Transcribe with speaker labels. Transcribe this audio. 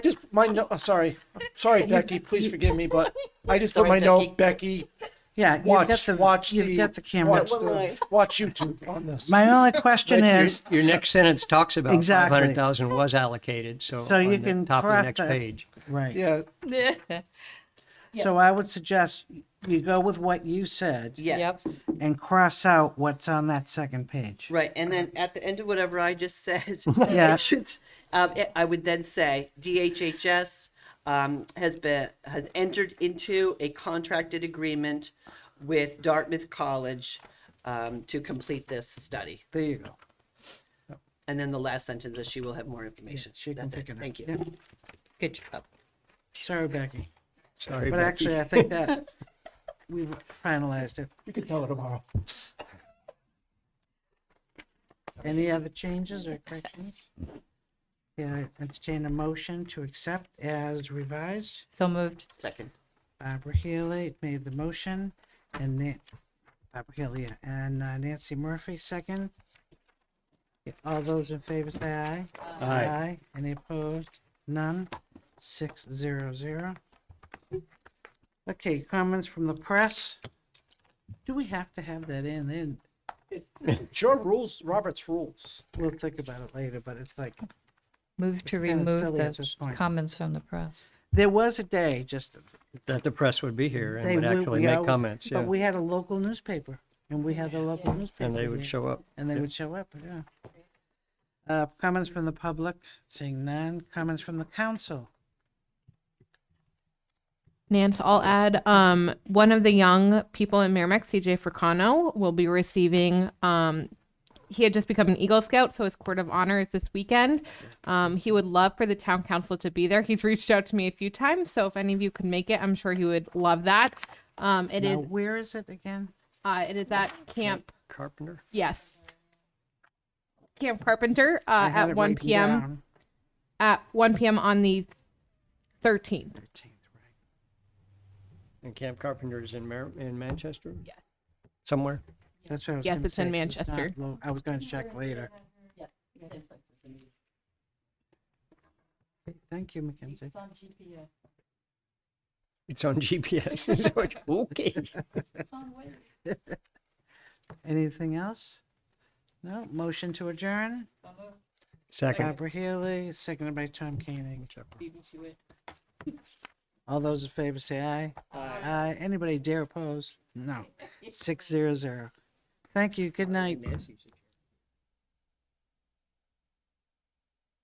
Speaker 1: my no, oh, sorry, sorry, Becky, please forgive me, but I just put
Speaker 2: Sorry,
Speaker 1: my note, Becky,
Speaker 3: Yeah, you've got
Speaker 1: watch,
Speaker 3: the,
Speaker 1: watch
Speaker 3: you've
Speaker 1: the,
Speaker 3: got the camera.
Speaker 1: watch the- Watch YouTube on this.
Speaker 3: My only question
Speaker 2: But your-
Speaker 3: is,
Speaker 2: Your next sentence talks about five
Speaker 3: Exactly.
Speaker 2: hundred thousand was allocated, so
Speaker 3: So you
Speaker 2: on the
Speaker 3: can
Speaker 2: top of the
Speaker 3: cross
Speaker 2: next
Speaker 3: that-
Speaker 2: page.
Speaker 3: right,
Speaker 1: Yeah,
Speaker 4: Yeah.
Speaker 3: so I would suggest you go with what you said
Speaker 5: Yes.
Speaker 4: Yep.
Speaker 3: and cross out what's on that second page.
Speaker 5: Right. And then at the end of whatever I just said,
Speaker 3: Uh-huh. Yeah.
Speaker 5: I, should, um, I- I would then say DHHS um, has been has entered into a contracted agreement with Dartmouth College um, to complete this study.
Speaker 3: There you go.
Speaker 5: And then the last sentence is she will have more information.
Speaker 3: she can
Speaker 5: That's
Speaker 3: pick it up.
Speaker 5: Thank you.
Speaker 3: Yeah.
Speaker 4: Good job.
Speaker 3: Sorry, Becky,
Speaker 2: Sorry,
Speaker 3: but
Speaker 2: Becky.
Speaker 3: actually, I think that we've finalized it.
Speaker 1: you can tell her tomorrow.
Speaker 3: Any other changes or corrections? Yeah, entertain a motion to accept as revised.
Speaker 4: So moved.
Speaker 5: Second.
Speaker 3: Barbara Healy made the motion and Nan- Barbara Healy yeah, and uh, Nancy Murphy second. Yeah, All those in favor say aye.
Speaker 2: Aye.
Speaker 3: Any opposed? None. Six zero zero. Okay, comments from the press. Do we have to have that in? Then
Speaker 1: Sure, rules, Robert's rules.
Speaker 3: we'll think about it later, but it's like
Speaker 4: Move
Speaker 3: It's
Speaker 4: to
Speaker 3: kinda
Speaker 4: remove
Speaker 3: silly at this
Speaker 4: the
Speaker 3: point.
Speaker 4: comments from the press.
Speaker 3: there was a day just
Speaker 2: That the press would be here and
Speaker 3: they
Speaker 2: would
Speaker 3: would-
Speaker 2: actually
Speaker 3: we
Speaker 2: make
Speaker 3: always-
Speaker 2: comments,
Speaker 3: But
Speaker 2: yeah,
Speaker 3: we had a local newspaper, and we had the local newspaper.
Speaker 2: and they
Speaker 3: here,
Speaker 2: would show up.
Speaker 3: And they
Speaker 2: yeah.
Speaker 3: would show up. Yeah. Uh, comments from the public, seeing none. Comments from the council.
Speaker 6: Nance, I'll add um, one of the young people in Merrimack, CJ Fricano, will be receiving. Um, he had just become an Eagle Scout, so his court of honor is this weekend. Um, he would love for the town council to be there. He's reached out to me a few times, so if any of you could make it, I'm sure he would love that. Um, it is
Speaker 3: Now, where is it again?
Speaker 6: uh, it is at camp.
Speaker 2: Carpenter?
Speaker 6: Yes, Camp Carpenter
Speaker 3: I
Speaker 6: uh,
Speaker 3: had it
Speaker 6: at 1
Speaker 3: written
Speaker 6: p.m.
Speaker 3: down.
Speaker 6: at 1 p.m. on the 13th.
Speaker 3: 13th, right.
Speaker 2: And Camp Carpenter is in Mar- in Manchester?
Speaker 6: Yes.
Speaker 2: Somewhere?
Speaker 3: That's what I was
Speaker 6: Yes,
Speaker 3: gonna
Speaker 6: it's in
Speaker 3: say, 'cause not
Speaker 6: Manchester.
Speaker 3: lo- I was going to check later. Okay, Thank you, Mackenzie.
Speaker 2: It's on GPS. so it- Okay.
Speaker 3: Anything else? No. Motion to adjourn.
Speaker 2: Second.
Speaker 3: Barbara Healy, seconded by Tom Koenig. All those in favor say aye. Aye. Anybody dare oppose? No. Six zero zero. Thank you. Good night.
Speaker 2: Nancy suggested-